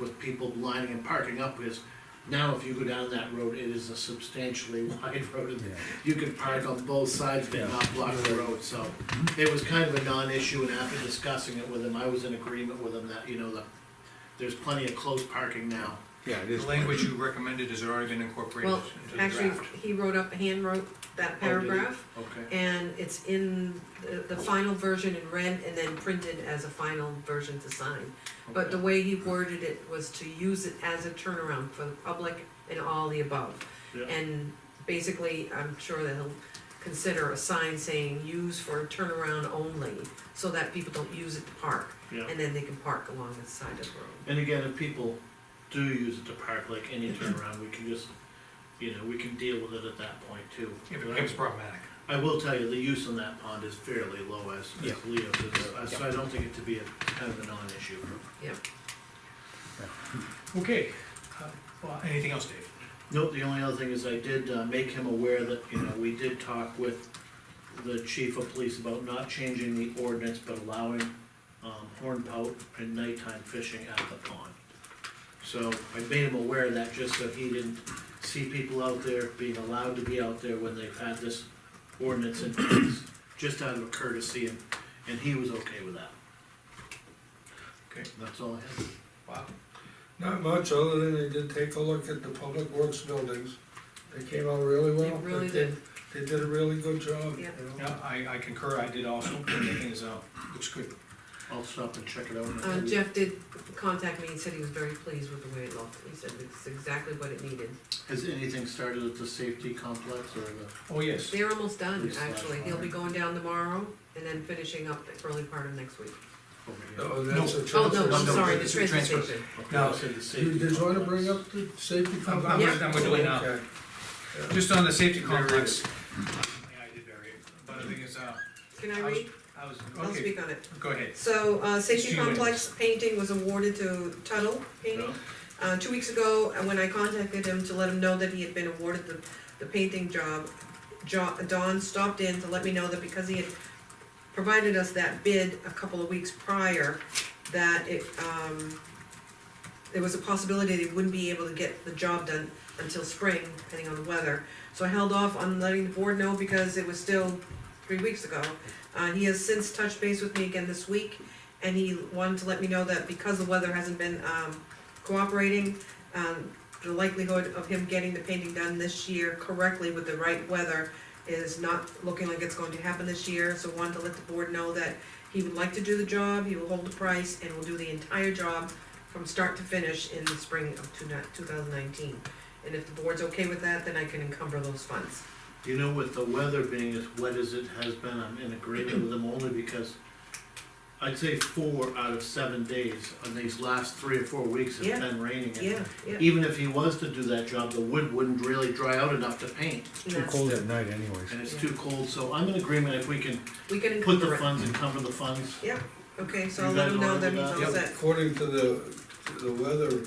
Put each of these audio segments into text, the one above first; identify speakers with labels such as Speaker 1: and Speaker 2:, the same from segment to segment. Speaker 1: with people lining and parking up, because now if you go down that road, it is a substantially wide road, and you can park on both sides, but not block the road, so. It was kind of a non-issue, and after discussing it with him, I was in agreement with him that, you know, the, there's plenty of close parking now.
Speaker 2: Yeah, it
Speaker 3: The
Speaker 4: Oh,
Speaker 2: is.
Speaker 3: language you recommended has already been incorporated
Speaker 5: Well,
Speaker 3: into the draft.
Speaker 5: actually, he wrote up, hand wrote that
Speaker 1: Oh, did he?
Speaker 5: paragraph,
Speaker 1: Okay.
Speaker 5: and it's in the, the final version in red and then printed as a final version to sign. But the
Speaker 1: Okay.
Speaker 5: way he worded it was to use it as a turnaround for the public and all the above.
Speaker 1: Yeah.
Speaker 5: And basically, I'm sure that he'll consider a sign saying use for turnaround only, so that people don't use it to park.
Speaker 1: Yeah.
Speaker 5: And then they can park along the side of the road.
Speaker 1: And again, if people do use it to park, like any turnaround, we can just, you know, we can deal with it at that point too.
Speaker 3: If it becomes problematic.
Speaker 1: I will tell you, the use on that pond is fairly low as,
Speaker 2: Yeah.
Speaker 1: as Leo says, so I don't think it to be a kind of a non-issue.
Speaker 5: Yeah.
Speaker 3: Okay, uh, well, anything else, Dave?
Speaker 1: Nope, the only other thing is I did uh, make him aware that, you know, we did talk with the chief of police about not changing the ordinance, but allowing, um, hornpout and nighttime fishing at the pond. So I made him aware of that just so he didn't see people out there being allowed to be out there when they've had this ordinance in place, just out of courtesy, and, and he was okay with that.
Speaker 3: Okay.
Speaker 1: That's all I have.
Speaker 3: Wow.
Speaker 4: Not much, other than they did take a look at the public works buildings. They came out really well.
Speaker 5: They really
Speaker 4: did- They did a really good job, you
Speaker 5: Yeah.
Speaker 4: know.
Speaker 3: Yeah, I, I concur, I did also, everything is, uh, looks good.
Speaker 1: I'll stop and check it out. in a
Speaker 5: Uh,
Speaker 1: few
Speaker 5: Jeff did contact me and said he was very pleased with the way it looked, he said it's exactly what it needed.
Speaker 1: Has anything started at the safety complex or the,
Speaker 3: Oh, yes,
Speaker 5: They're almost done, actually, he'll be going down tomorrow and then finishing up the early part of next week.
Speaker 1: over
Speaker 4: Oh, that's a
Speaker 5: Oh,
Speaker 4: transfer.
Speaker 5: no, I'm
Speaker 3: no,
Speaker 5: sorry, the
Speaker 3: it's a
Speaker 5: transfer
Speaker 3: transfer.
Speaker 5: station.
Speaker 1: here?
Speaker 3: Now,
Speaker 1: Okay, I said the safety
Speaker 4: Did did you wanna
Speaker 1: complex.
Speaker 4: bring up the safety
Speaker 3: I'm-
Speaker 4: complex?
Speaker 3: I'm,
Speaker 5: Yeah.
Speaker 3: I'm doing now.
Speaker 4: Okay.
Speaker 3: Just on the safety
Speaker 4: Very
Speaker 3: complex. Yeah, I did bury it, but the thing is, uh,
Speaker 5: Can I
Speaker 3: I was,
Speaker 5: read?
Speaker 3: I was,
Speaker 5: I'll
Speaker 3: okay,
Speaker 5: speak on it.
Speaker 3: go ahead.
Speaker 5: So, uh, Safety
Speaker 3: Two minutes.
Speaker 5: Complex painting was awarded to Tuttle Painting.
Speaker 1: No?
Speaker 5: Uh, two weeks ago, uh, when I contacted him to let him know that he had been awarded the, the painting job, Jo- Don stopped in to let me know that because he had provided us that bid a couple of weeks prior, that it, um, there was a possibility that he wouldn't be able to get the job done until spring, depending on the weather. So I held off on letting the board know because it was still three weeks ago. Uh, he has since touched base with me again this week, and he wanted to let me know that because the weather hasn't been, um, cooperating. Um, the likelihood of him getting the painting done this year correctly with the right weather is not looking like it's going to happen this year, so wanted to let the board know that he would like to do the job, he will hold the price, and will do the entire job from start to finish in the spring of two thousand nineteen. And if the board's okay with that, then I can encumber those funds.
Speaker 1: You know, with the weather being as wet as it has been, I'm in agreement with them only because I'd say four out of seven days on these last three or four weeks
Speaker 5: Yeah.
Speaker 1: has been raining. and
Speaker 5: Yeah, yeah.
Speaker 1: Even if he was to do that job, the wood wouldn't really dry out enough to paint,
Speaker 5: and
Speaker 2: Too
Speaker 5: that's-
Speaker 2: cold at night anyways.
Speaker 1: and it's
Speaker 5: Yeah.
Speaker 1: too cold, so I'm in agreement if we can
Speaker 5: We can
Speaker 1: put the
Speaker 5: encumber it.
Speaker 1: funds and cover the funds.
Speaker 5: Okay, so
Speaker 1: You
Speaker 5: I'll let
Speaker 1: guys
Speaker 5: him know
Speaker 1: alright
Speaker 5: that
Speaker 1: with
Speaker 5: he's
Speaker 1: that?
Speaker 5: all set.
Speaker 4: According to the, the weather,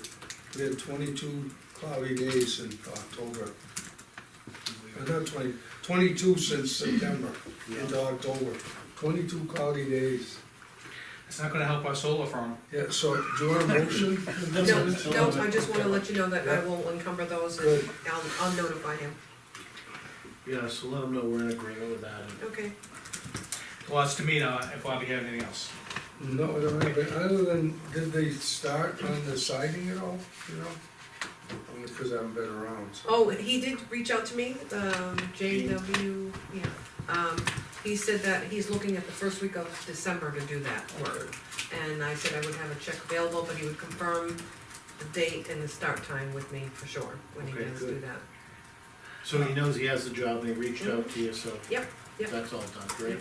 Speaker 4: we had twenty-two cloudy days in October. Uh, Not twenty, twenty-two since September into October, twenty-two cloudy days.
Speaker 3: It's not gonna help our solar farm.
Speaker 4: Yeah, so do you want a motion?
Speaker 5: No, no, I just wanna let you know that I will encumber those and
Speaker 4: Good.
Speaker 5: I'll, I'll notify him.
Speaker 1: Yeah, so let them know we're in agreement with that. and-
Speaker 5: Okay.
Speaker 3: Well, it's to me now, if Bobby have anything else.
Speaker 4: No, I don't have it. other than, did they start on the siding at all, you know? Only because I haven't been around, so.
Speaker 5: Oh, he did reach out to me, um, JW, yeah, um, he said that he's looking at the first week of December to do that work. And I said I would have a check available, but he would confirm the date and the start time with me for sure, when he
Speaker 1: Okay,
Speaker 5: does do
Speaker 1: good.
Speaker 5: that.
Speaker 1: So he knows he has the job and he reached out to you, so.
Speaker 5: Yep, yep.
Speaker 1: That's all done, great.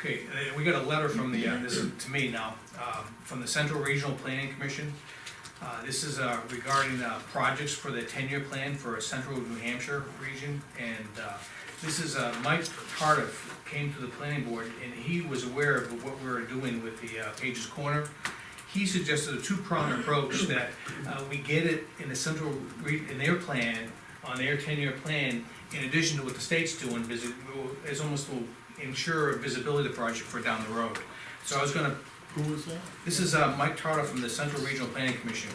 Speaker 3: Okay, uh, we got a letter from the, uh, this is to me now, um, from the Central Regional Planning Commission. Uh, This is uh, regarding uh, projects for the ten-year plan for central New Hampshire region. And uh, this is uh, Mike Cardiff came to the planning board and he was aware of what we were doing with the uh, Page's Corner. He suggested a two-pronged approach that uh, we get it in the central, re- in their plan, on their ten-year plan, in addition to what the state's doing, visi- is almost will ensure visibility of the project for down the road. So I was gonna
Speaker 1: Who was that?
Speaker 3: This is uh, Mike Tarter from the Central Regional Planning Commission.